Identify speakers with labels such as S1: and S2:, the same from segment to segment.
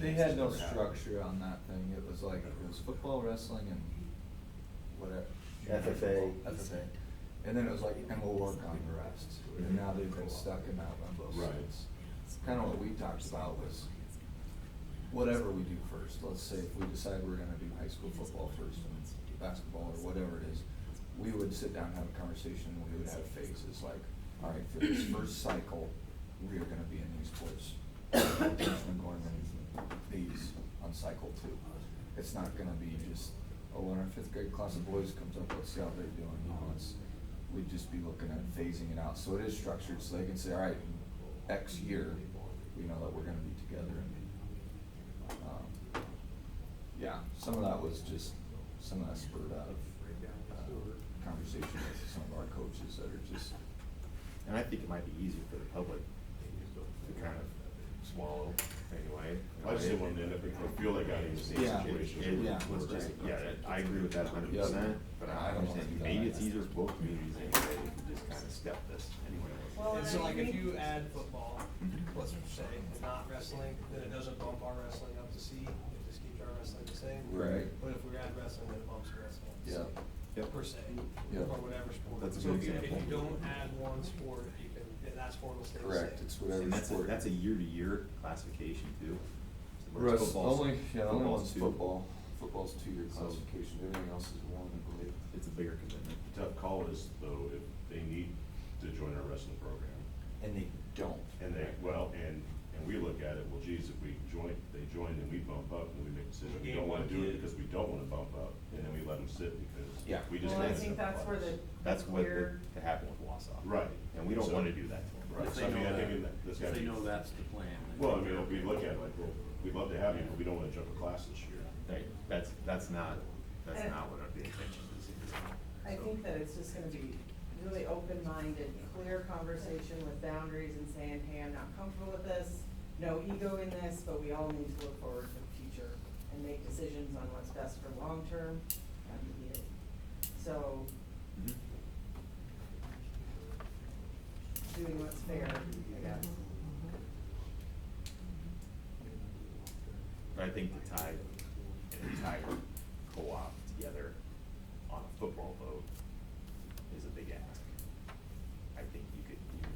S1: They had no structure on that thing, it was like, it was football, wrestling, and whatever.
S2: FFA.
S1: FFA. And then it was like, and we'll work on the rest, and now they've been stuck in that limbo. So
S3: Right.
S1: it's Kinda what we talked about was, whatever we do first, let's say if we decide we're gonna do high school football first and basketball or whatever it is, we would sit down, and have a conversation, we would have phases, like, all right, for this first cycle, we are gonna be in these sports. Richmond, Gorman, these on cycle two. It's not gonna be just, oh, when our fifth grade class of boys comes up, let's see how they're doing, you know, it's, we'd just be looking at phasing it out, so it is structured, so they can say, all right, X year, we know that we're gonna be together and, um, yeah, some of that was just, some of that spurred out of, uh, conversation with some of our coaches that are just,
S3: And I think it might be easier for the public to kind of swallow anyway.
S4: I just didn't want to end up, I feel like I in the same
S1: Yeah.
S4: situation.
S3: It
S1: Yeah.
S3: was just, yeah, that- I agree with that hundred percent, but
S1: Yeah, I
S3: I
S1: don't wanna do
S3: understand,
S1: that.
S3: maybe it's easier for both communities anyway, if we just kind of step this anyway. Mm-hmm.
S5: Well, and
S6: so
S5: I
S6: like if
S5: agree.
S6: you add football, let's say, and not wrestling, then it doesn't bump our wrestling up to C, it just keeps our wrestling the same.
S1: Right.
S6: But if we add wrestling, then it bumps wrestling to C.
S1: Yeah.
S3: Yep.
S6: Per se,
S1: Yeah.
S6: or whatever sport.
S3: That's a
S6: So
S3: good
S6: if you- If you
S3: example.
S6: don't add one sport, you can, then that sport will stay the same.
S1: correct, it's whatever.
S3: And that's a,
S1: sport.
S3: that's a year-to-year classification too. So whereas
S1: Russ,
S3: football's-
S1: only, yeah, only
S3: football's
S1: one's
S3: two.
S1: football, football's two-year
S3: So-
S1: classification, everything else is one, I believe.
S3: It's a bigger commitment.
S4: The Tough call is though, if they need to join our wrestling program,
S1: And they don't.
S4: and they, well, and, and we look at it, well, geez, if we join, they join and we bump up, and we make a decision, we don't wanna do it because we don't wanna bump up, and then we let them sit
S1: Yeah.
S4: because we just.
S5: Well, I
S4: let
S5: think
S4: them
S5: that's
S4: bump
S5: where
S4: us.
S5: the, the
S3: That's what the,
S5: clear,
S3: that happened with Wausau.
S4: Right.
S3: And we don't
S4: So-
S3: wanna do that to them.
S4: Right,
S7: If
S4: so
S7: they
S4: I mean,
S7: know
S4: I think
S7: that-
S4: in that, that's
S7: If
S4: gotta
S7: they
S4: be.
S7: know that's the plan. then
S4: Well, I mean, if we look at it like, well, we'd love to have you, but we don't wanna jump a class this year.
S3: Right, that's, that's not, that's
S5: And-
S3: not what the intention is.
S5: I think that it's just gonna be really open-minded, clear conversation with boundaries and saying, hey, I'm not comfortable with this, no ego in this, but we all need to look forward to the future and make decisions on what's best for long-term, not immediate. So,
S3: Mhm.
S5: doing what's fair, I guess.
S3: But I think to tie an entire co-op together on a football vote is a big ask. I think you could, you could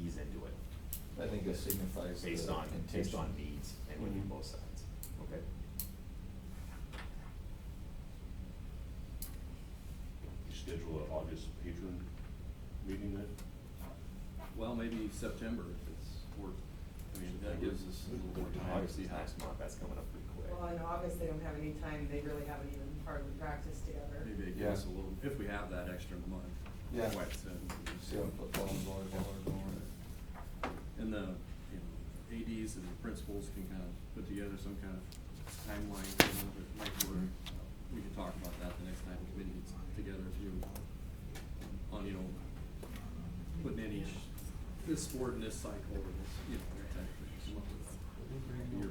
S3: you ease into it
S1: I think it signifies the
S3: based on, based
S1: intention.
S3: on needs and within
S1: Mhm.
S3: both sides. Okay.
S4: You schedule an August patron meeting then?
S7: Well, maybe September if it's work, I mean, that gives us a little more time to
S3: August
S7: see
S3: is
S7: how.
S3: next month, that's coming up pretty quick.
S5: Well, in August, they don't have any time, they really haven't even hardly practiced together.
S7: Maybe it gives us a little, if we have that extra month.
S1: Yeah.
S7: Right, then.
S1: See how football and volleyball are going.
S7: And the, you know, ADs and the principals can kind of put together some kind of timeline, you know, that might work. We can talk about that the next time the committee gets together too, on, you know, putting in each, this sport in this cycle, or this, you know, that type of thing, come up with your plan.
S1: Junior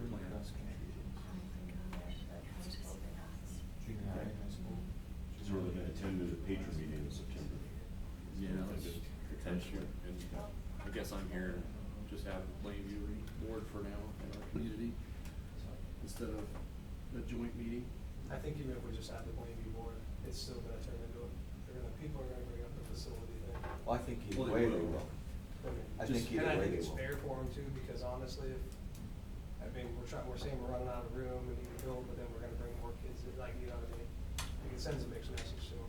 S1: high, high school.
S4: Is there really gonna attend to the patron meeting in September?
S7: Yeah, that's potentially, and I guess I'm here and just have Plainview board for now in our community, instead of a joint meeting.
S6: I think even if we just add the Plainview Board, it's still gonna turn into, a- they're gonna, people are gonna bring up the facility thing.
S1: Well, I think either
S7: Well, they
S1: way they
S7: will.
S1: will.
S6: I mean,
S1: I
S6: just-
S1: think either
S6: And I
S1: way
S6: think
S1: they
S6: it's
S1: will.
S6: fair for them too, because honestly, if, I mean, we're trying, we're saying we're running out of room and need to build, but then we're gonna bring more kids in, like, you know what I mean? Like, it sends a mixed message to them.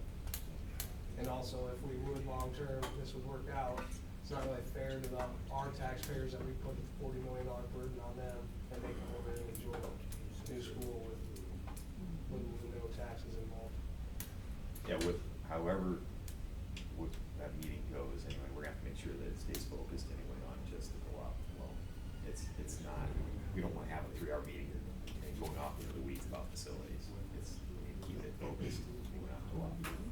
S6: And also, if we would long-term, this would work out, it's not really fair to the, our taxpayers that we put a forty million dollar burden on them, and they come over and enjoy a new school with, with no taxes involved.
S3: Yeah, with, however, with that meeting goes, anyway, we're gonna have to make sure that it stays focused anyway on just the co-op alone. It's, it's not, we don't wanna have a three-hour meeting and going off into the weeds about facilities. It's, keep it focused, we're not co-op.
S2: Well,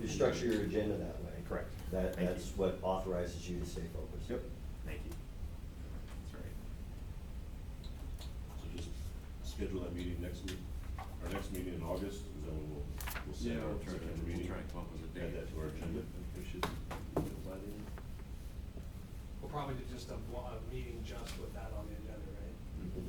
S2: You structure your agenda that way.
S3: Correct.
S2: That,
S3: Thank
S2: that's
S3: you.
S2: what authorizes you to stay focused.
S3: Thank you. That's right.
S4: So just schedule that meeting next week, our next meeting in August, and then we'll, we'll set
S7: Yeah,
S4: our
S7: we'll try,
S4: September
S7: to- we'll
S4: meeting.
S7: try and come up with a date.
S4: Add that to our agenda.
S7: If we should, by then.
S6: We'll probably do just a, blo- a meeting just with that on the